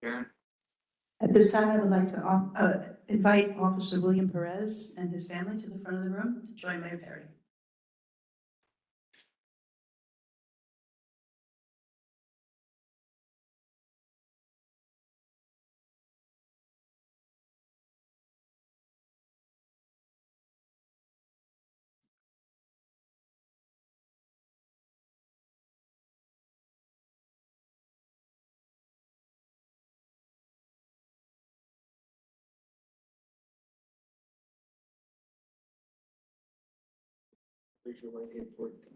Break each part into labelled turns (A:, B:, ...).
A: Karen?
B: At this time, I would like to off- uh, invite Officer William Perez and his family to the front of the room to join Mayor Perry.
A: Raise your right hand toward the camera.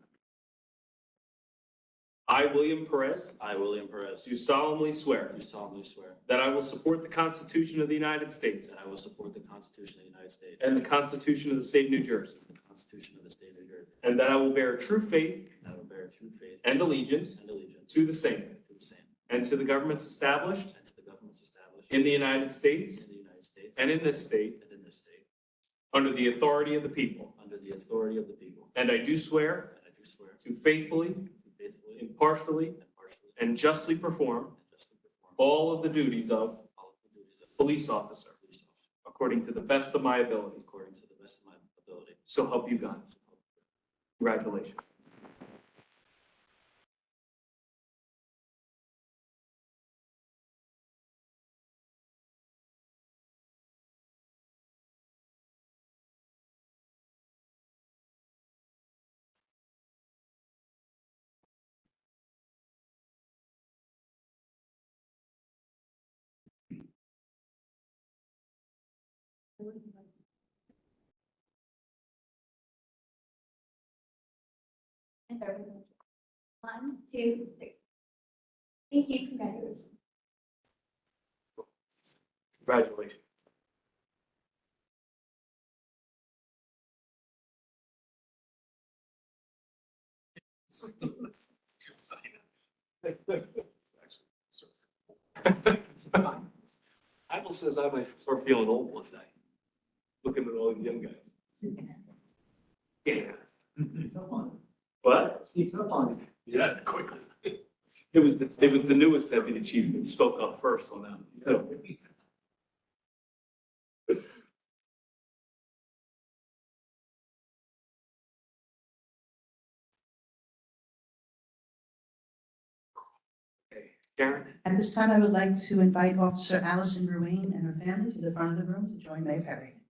A: I, William Perez,
C: I, William Perez,
A: do solemnly swear
C: do solemnly swear
A: that I will support the Constitution of the United States
C: that I will support the Constitution of the United States
A: and the Constitution of the State of New Jersey,
C: and the Constitution of the State of New Jersey,
A: and that I will bear true faith
C: and I will bear true faith
A: and allegiance
C: and allegiance
A: to the same
C: to the same
A: and to the governments established
C: and to the governments established
A: in the United
C: in
A: States
C: the United States
A: and in this state
C: and in this state,
A: under the authority of the people.
C: under the authority of the people,
A: And I do swear
C: and I do swear
A: to faithfully,
C: to faithfully,
A: impartially,
C: impartially, and
A: and justly perform
C: justly perform
A: all of the duties of
C: all of the duties of
A: police officer
C: police officer
A: according to the best of my ability.
C: according to the best of my ability.
A: So help you God.
C: So help me God.
A: Congratulations.
D: And there we go. One, two, three. Thank you, congratulations.
A: Congratulations. Apple says I might start feeling old one day, looking at all these young guys. Yeah.
E: It's up on
A: What?
E: it. It's up on it.
A: Yeah, quickly. It was, the it was the newest deputy chief who spoke up first on that. So Karen?
B: At this time, I would like to invite Officer Allison Ruane and her family to the front of the room to join Mayor Perry.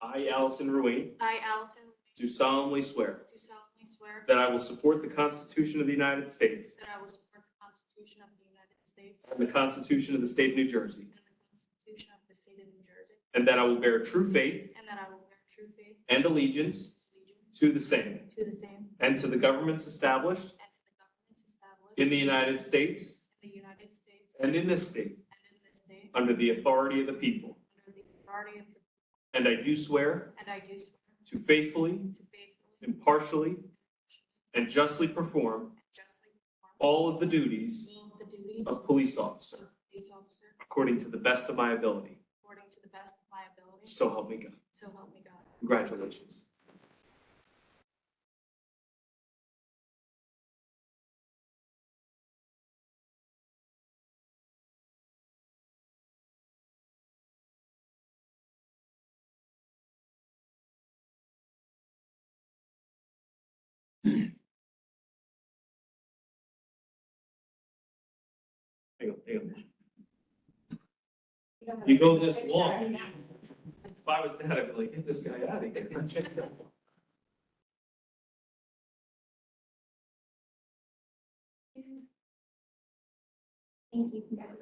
A: I, Allison Ruane,
F: I, Allison,
A: do solemnly swear
F: do solemnly swear
A: that I will support the Constitution of the United States
F: that I will support the Constitution of the United States
A: and the Constitution of the State of New Jersey,
F: and the Constitution of the State of New Jersey,
A: and that I will bear true faith
F: and that I will bear true faith
A: and allegiance
F: and allegiance
A: to the same
F: to the same
A: and to the governments established
F: and to the governments established
A: in the United States
F: in the United States and
A: and in this state
F: in this state
A: under the authority of the people.
F: under the authority of the
A: And I do swear
F: and I do swear
A: to faithfully,
F: to faithfully
A: impartially, and justly perform
F: and justly perform
A: all of the duties
F: all of the duties
A: of
F: of
A: police officer
F: police officer
A: according to the best of my ability.
F: according to the best of my ability,
A: So help me God.
F: so help me God.
A: Congratulations. Hang on, hang on.
D: don't have
A: You
D: to
A: go
D: take a
A: this
D: picture.
A: long. If I was dad, I'd be like, get this guy out of here.
D: Thank you, congratulations.